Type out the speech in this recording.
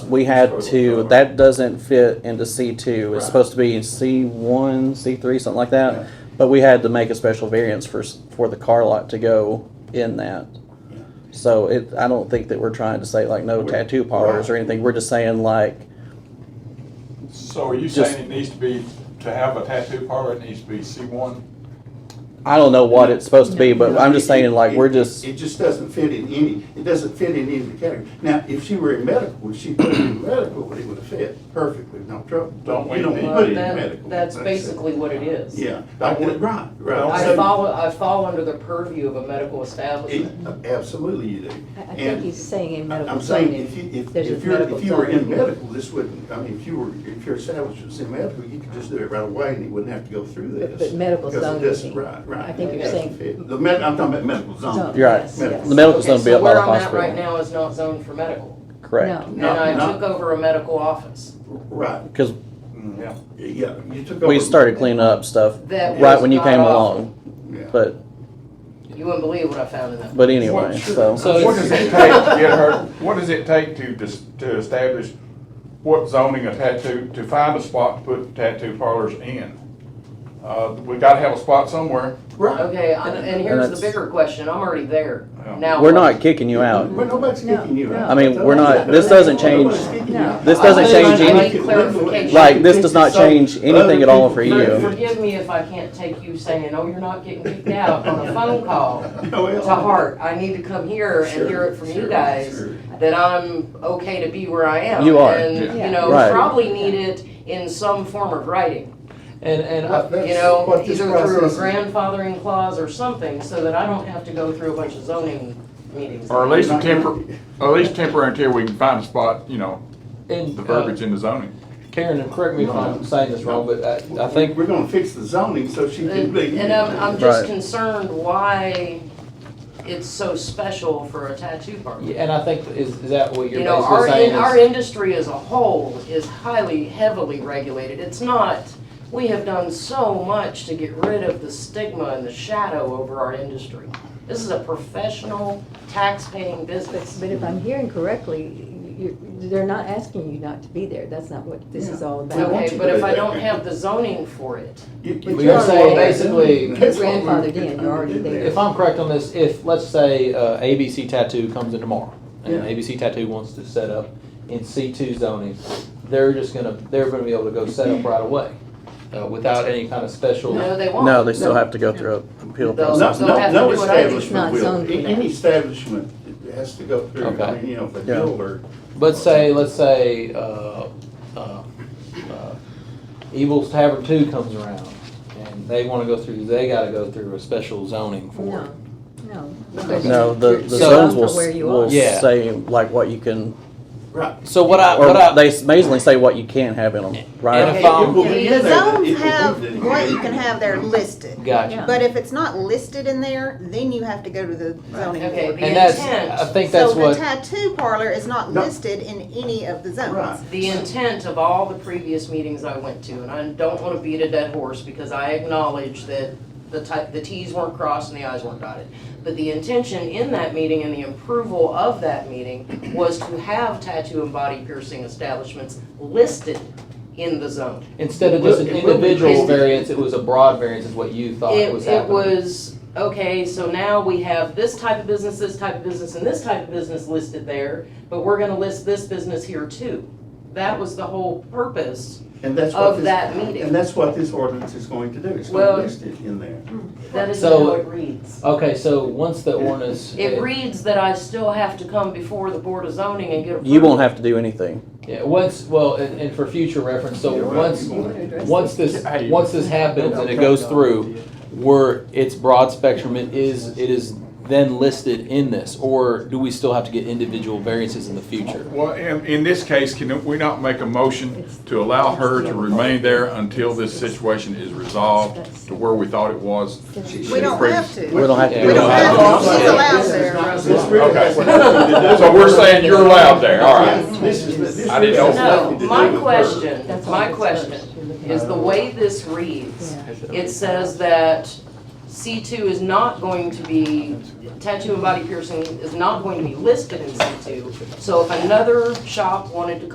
we had to, that doesn't fit into C two, Right. it's supposed to be in C one, C three, something like Right. that. But we had to make a special variance for, s- for the car lot to go in that. Yeah. So it, I don't think that we're trying to say like no We- tattoo parlors or Right. anything, we're just saying like, So are you Just- saying it needs to be, to have a tattoo parlor, it needs to be C one? I don't know what it's supposed to be, but I'm just saying like, It- we're it- just, It just doesn't fit in any, it doesn't fit in any of the categories. Now, if she were in medical, if she put it in medical, it would have fit perfectly, no trouble. Don't we You don't need- put it in Well, that- medical. that's basically what it is. Yeah, I would, right, right. I So- fall, I fall under the purview of a medical establishment. it- Absolutely you do. I I And- think he's saying in medical I'm zoning. saying, if you, if, there's if a you're, medical if you were in zoning. medical, this wouldn't, I mean, if you were, if your establishment was in medical, you could just do it right away and you wouldn't have to go through But- this. but medical Because it zoning, doesn't- Right, right. I think It you're doesn't saying- fit. The med, I'm talking about medical Zone, zoning. You're right. yes, Medical. yes. the medical's Okay, gonna be so up by where the I'm at right hospital. now is not zoned for medical. Correct, No. And No, I no. took over a medical office Right, because Yeah. yeah, you took over. we started cleaning up stuff that was right when you not came offered. along, Yeah. but, You wouldn't believe what I found in that. but anyway, so. So- What does it take to get her, what does it take to, dis- to establish what zoning a tattoo, to find a spot to put tattoo parlors in? Uh, we gotta have a spot somewhere. Right. Okay, I'm- and here's the that's- bigger question, I'm already there. Yeah. Now. We're what? not kicking you out. Well, nobody's kicking you out. I mean, we're not- this doesn't change- Nobody's kicking you No. out. This I doesn't would change like- I any- need clarification. Like, this does not change anything at all for For- you. Forgive me if I can't take you saying, oh, you're not getting kicked out on a phone call Oh, well. to heart. I need to come here and Sure, hear it from you sure, guys sure. that I'm okay to be where I am. You are. And, Yeah. you know, Right. probably need it in some form of writing, And, and Well, I- that's you know, what this either through a process is. grandfathering clause or something, so that I don't have to go through a bunch of zoning meetings. Or at least a tempor, or at least temporary until we can find a spot, you know, and, the uh, verbiage in the zoning. Karen, and correct me if I'm saying this wrong, but I, I think, We're gonna fix the zoning so she can And be. and I'm, I'm just Right. concerned why it's so special for a tattoo parlor. and I think, is, is that what You you're know, our, basically in, saying? our is- industry as a whole is highly, heavily regulated. It's not, we have done so much to get rid of the stigma and the shadow over our industry. This is a professional, tax-paying But, business. but if I'm hearing correctly, you, they're not asking you not to be there, that's not what this is all We about. want- Okay, you but to if do I that. don't have the zoning for it, But you're saying basically- Your grandfather did, you're already there. If I'm correct on this, if, let's say, uh, ABC Tattoo comes in tomorrow, and Yeah. ABC Tattoo wants to set up in C two zoning, they're just gonna, they're gonna be able to go set up right away, uh, without any kind of special. no, they won't. No, they still have to go through a appeal No, process. No, They'll have no, to no do what I do. It's establishment not will, zoned for any that. establishment has to go through, I Okay. mean, you know, if a Yeah. bill or. But say, let's say, uh, uh, uh, Evil's Tavern Two comes around, and they wanna go through, they gotta go through a special zoning for it. No, no. No, the, the You're zones zoned will, for where you will are. Yeah. say like what you can, Right. So what I, or what I. they basically say what you can't have in them, And right? if I'm- It will be The in there, but it zones will be have there. what you can have there listed, Gotcha. Yeah. but if it's not listed in there, then you have to go to the zoning Okay, board. The And that's, intent. I think that's So the what, tattoo parlor is not No. listed in any of the Right. zones. The intent of all the previous meetings I went to, and I don't want to beat a dead horse because I acknowledge that the ti- the Ts weren't crossed and the Is weren't dotted. But the intention in that meeting and the approval of that meeting was to have tattoo and body piercing establishments listed in the zone. instead of just an It will be individual listed. variance, it was a broad variance is what you thought It, was it happening. was, okay, so now we have this type of business, this type of business, and this type of business listed there, but we're gonna list this business here too. That was the whole purpose. And that's of what this. that meeting. And that's what this ordinance is going to do, it's Well- going to list it in there. That is So- how it reads. Okay, so once the ordinance. It reads that I still have to come before the Board of Zoning and get approval. You won't have to do anything. Yeah, once, well, and, and for future reference, so once, once this, Hey. once this happens and it goes through, where it's broad spectrum, it is, it is then listed in this, or do we still have to get individual variances in the future? Well, in, in this case, can we not make a motion to allow her to remain there until this situation is resolved to where we thought it was? We don't have to. We don't have to We do don't anything. have Well, I'm She's saying allowed this is there. not- this really Okay. has nothing to do So we're with- saying you're allowed there, all right. Yeah, This is, this I didn't really has know. nothing No, to do my with her. question, That's all my that's question first. is the way this reads, Yeah. it says that C2 is not going to be, tattoo and body piercing is not going to be listed in C2. So if another shop wanted to